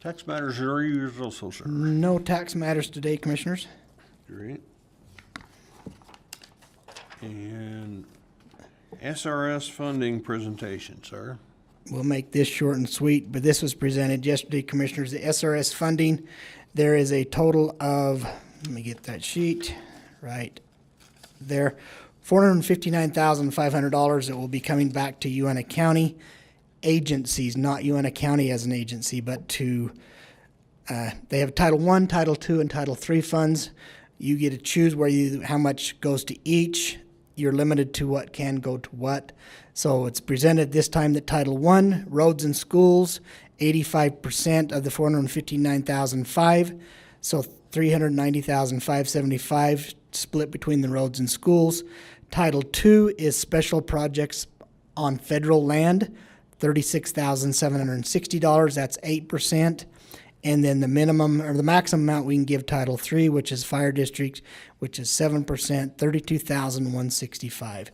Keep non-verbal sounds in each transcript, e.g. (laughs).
Tax matters are yours also, sir. No tax matters today, Commissioners. Great. And SRS funding presentation, sir. We'll make this short and sweet, but this was presented yesterday, Commissioners, the SRS funding. There is a total of, let me get that sheet right there, $459,500 that will be coming back to UNA County agencies, not UNA County as an agency, but to Uh, they have Title I, Title II, and Title III funds. You get to choose where you, how much goes to each. You're limited to what can go to what. So it's presented this time that Title I, roads and schools, eighty-five percent of the four hundred and fifty-nine thousand five. So three hundred and ninety thousand five seventy-five split between the roads and schools. Title II is special projects on federal land, thirty-six thousand seven hundred and sixty dollars, that's eight percent. And then the minimum or the maximum amount we can give Title III, which is fire district, which is seven percent, thirty-two thousand one sixty-five.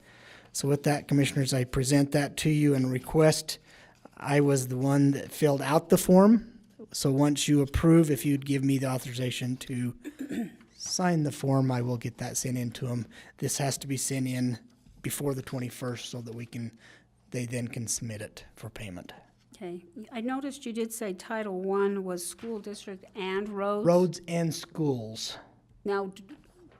So with that, Commissioners, I present that to you and request, I was the one that filled out the form. So once you approve, if you'd give me the authorization to sign the form, I will get that sent in to them. This has to be sent in before the twenty-first so that we can, they then can submit it for payment. Okay, I noticed you did say Title One was school district and roads. Roads and schools. Now, d-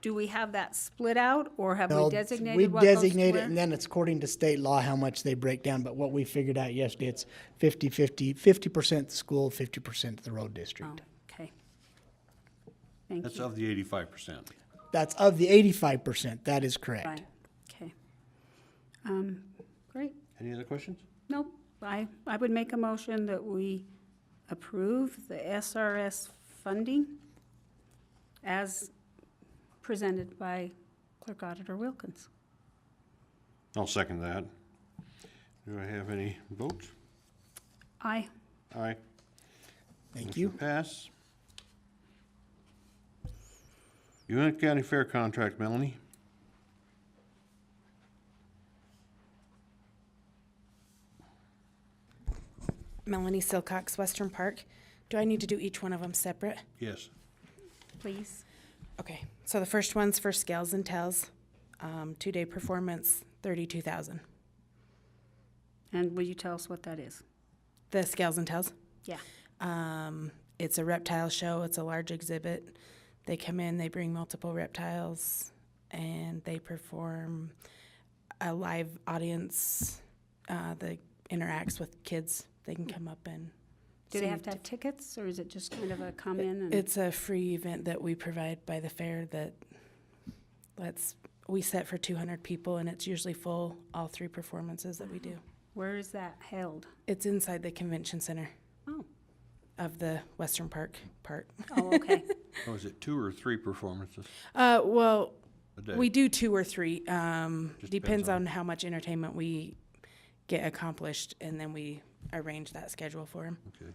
do we have that split out, or have Well, we we designated what goes to designate it, where? and then it's according to state law how much they break down, but what we figured out yesterday, it's fifty, fifty, fifty percent the school, fifty percent the road Oh, district. Okay. Thank you. That's of the eighty-five percent. That's of the eighty-five percent, that is correct. Right, okay. Um, Great. Any other questions? Nope, I, I would make a motion that we approve the SRS funding as presented by Clerk Auditor Wilkins. I'll second that. Do I have any votes? Aye. Aye. Thank Motion you. Pass. Uinta County Fair contract, Melanie. Melanie Silcox, Western Park. Do I need to do each one of them separate? Yes. Please. Okay, so the first one's for Scales and Tells, um, two-day performance, thirty-two thousand. And will you tell us what that is? The Scales and Tells, Yeah. um, it's a reptile show. It's a large exhibit. They come in, they bring multiple reptiles, and they perform a live audience uh, that interacts with kids. They can come up and Do they sing have to have tickets, or is it just kind of a come in and? It's a free event that we provide by the fair that lets, we set for two hundred people and it's usually full, all three performances that we do. Where is that held? It's inside the convention center Oh, of the Western Park part. (laughs) oh, okay. Oh, is it two or three performances (laughs) Uh, well, a day? we do two or three, um, Just depends depends on- on how much entertainment we get accomplished and then we arrange that schedule for them. Okay.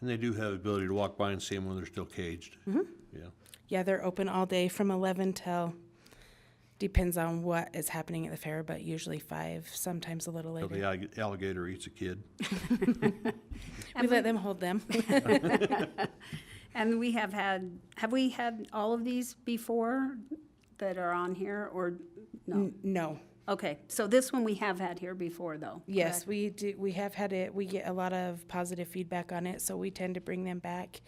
And they do have the ability to walk by and see them when they're still caged. Mm-hmm. Yeah. Yeah, they're open all day from eleven till, depends on what is happening at the fair, but usually five, sometimes a little Till later. the allig- alligator eats a kid. We let them hold (laughs) them. And we have had, have we had all of these before that are on here, or no? No. Okay, so this one we have had here before, though. Yes, we do, we have had it, we get a lot of positive feedback on it, so we tend to bring them back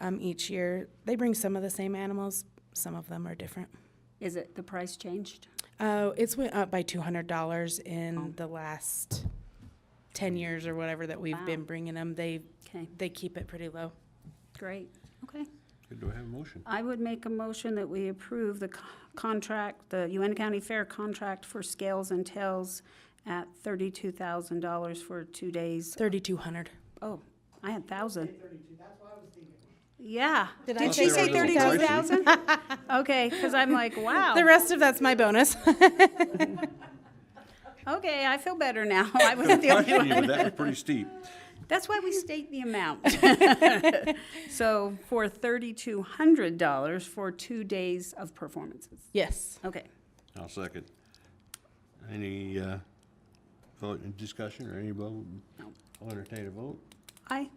um, each year. They bring some of the same animals, some of them are different. Is it, the price changed? Uh, it's went up by two hundred dollars Oh. in the last ten years or whatever that we've been bringing them. They, Okay, they keep it pretty low. great, okay. Okay, Do I have a motion? I would make a motion that we approve the co- contract, the UN County Fair contract for scales and tails at thirty-two thousand dollars for two days. Thirty-two hundred. Oh, I had thousand. Yeah. Did I Did say she say thirty-two 32,000? thousand? Okay, because I'm (laughs) like, wow. The rest of that's my bonus. (laughs) Okay, I feel better now. (laughs) I was the only Question you, one. but that was (laughs) pretty steep. That's why we state the amount. (laughs) So for thirty-two hundred dollars for two days of performances. Yes. Okay. I'll second. Any, uh, vote and discussion or any vote? No. I'll entertain a vote. Aye.